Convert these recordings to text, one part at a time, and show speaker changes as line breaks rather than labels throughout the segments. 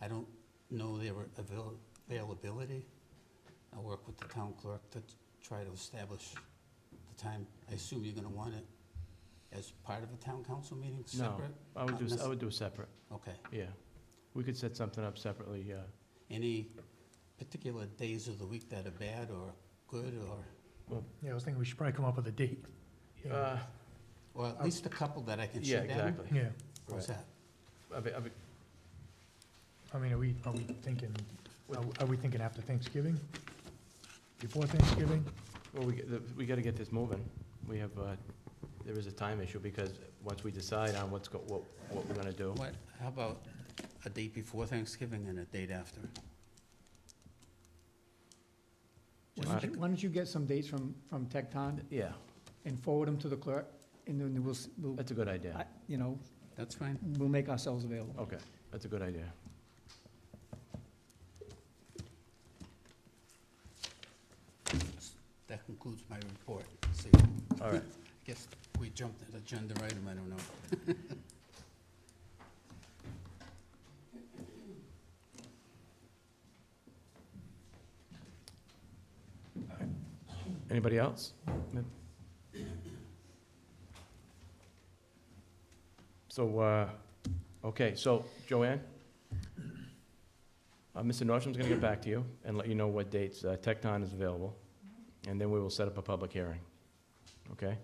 I don't know their avail- availability. I'll work with the town clerk to try to establish the time. I assume you're gonna want it as part of a town council meeting,
No,
separate?
I would
Not
do, I
necess-
would do separate,
Okay.
yeah. We could set something up separately, yeah.
Any particular days of the week that are bad or good or,
Yeah, I was thinking we should probably come up with a date. Yeah.
Uh,
or at least a couple that I can
Um, Yeah,
shoot down?
exactly.
Yeah,
How's that?
I'd be- I'd be-
I mean, are we, are we thinking, are are we thinking after Thanksgiving? Before Thanksgiving?
Well, we, get the- we gotta get this moving. We have, uh, there is a time issue because once we decide on what's, go- what, what we're gonna do.
What, how about a date before Thanksgiving and a date after?
Why don't you- why don't you get some dates from, from Tecton
Yeah,
and forward them to the clerk, and then we'll, s- we'll,
that's a good idea.
I- you know,
That's fine.
we'll make ourselves available.
Okay, that's a good idea.
That concludes my report. See,
All right.
I guess we jumped an agenda item, I don't know.
Anybody else? So, uh, okay, so Joanne? Uh, Mr. Nordstrom's gonna get back to you and let you know what dates uh, Tecton is available, and then we will set up a public hearing, okay?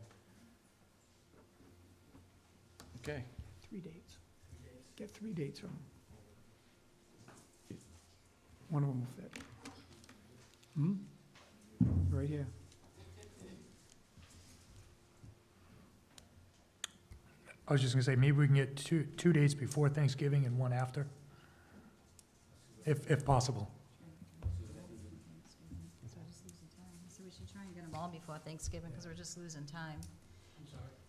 Okay,
Three dates. Get three dates from them. One of them will fit. Hmm? Right here.
I was just gonna say, maybe we can get two, two dates before Thanksgiving and one after, if, if possible.
So we should try and get them all before Thanksgiving, because we're just losing time.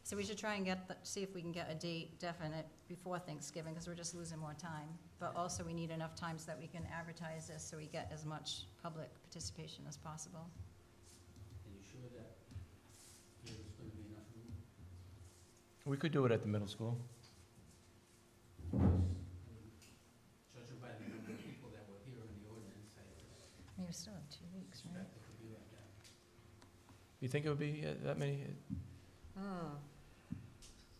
So we should try and get, the- see if we can get a date definite before Thanksgiving, because we're just losing more time. But also, we need enough time so that we can advertise this, so we get as much public participation as possible.
Are you sure that there's gonna be enough room?
we could do it at the middle school.
um, Judging by the number of people that were here in the ordinance, I
I mean, we still have two weeks, right?
it could be like that.
You think it would be uh, that many?
Hmm.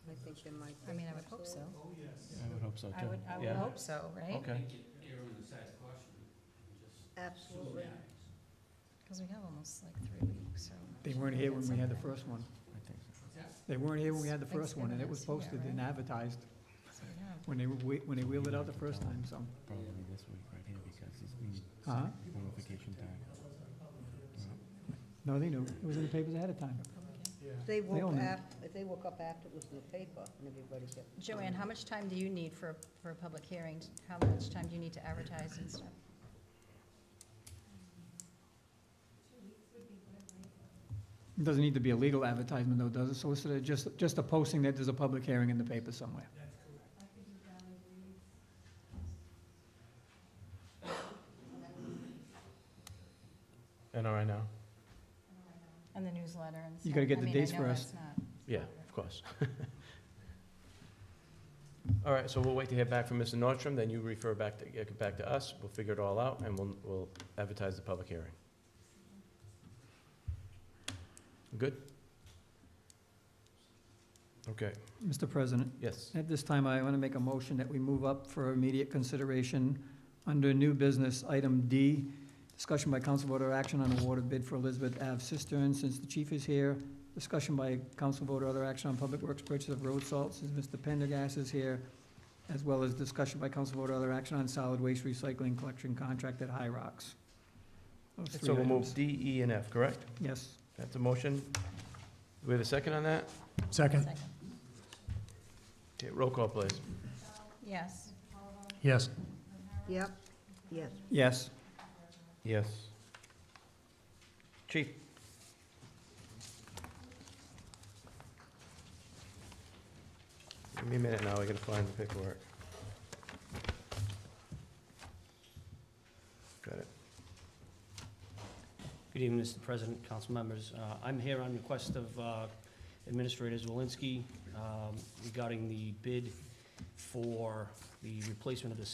I think there might
I mean, I would hope so.
I would hope so, too.
I would, I would
Yeah.
hope so, right?
Okay,
Err on the side of caution and just
Absolutely.
Because we have almost like three weeks, so.
They weren't here when we had the first one.
I think so.
They weren't here when we had the first one, and it was posted
Thanksgiving is here,
and advertised
So, yeah.
when they, whe- when they wheeled it out the first time, so.
Probably this week right here because it's been
Uh-huh.
notification time.
No, they knew. It was in the papers ahead of time.
They
They all
woke
know.
up, if they woke up after it was in the paper and everybody kept.
Joanne, how much time do you need for, a- for a public hearing? How much time do you need to advertise and stuff?
It Doesn't need to be a legal advertisement though, does it, solicitor? Just, just a posting that there's a public hearing in the paper somewhere.
And all right now?
And the newsletter and stuff?
You gotta get
I
the
mean, I
dates
know
for us.
that's not-
Yeah, of course. All right, so we'll wait to hear back from Mr. Nordstrom, then you refer back to, get back to us, we'll figure it all out, and we'll, we'll advertise the public hearing. Good? Okay,
Mr. President,
yes,
at this time, I want to make a motion that we move up for immediate consideration under new business, item D, discussion by council voter action on award of bid for Elizabeth Ave cistern, since the chief is here. Discussion by council voter other action on public works purchase of road salt, since Mr. Pendergast is here, as well as discussion by council voter other action on solid waste recycling collection contract at High Rocks. Those three
so we'll move
items.
D, E, and F, correct?
Yes.
That's a motion. Do we have a second on that?
Second,
Second.
Okay, roll call, please.
Yes.
yes.
Yep, yes.
Yes.
Yes. Chief? Give me a minute now, I gotta find the paperwork. Got it.
Good evening, Mr. President, council members. Uh, I'm here on request of uh, Administrator Zelinski um, regarding the bid for the replacement of the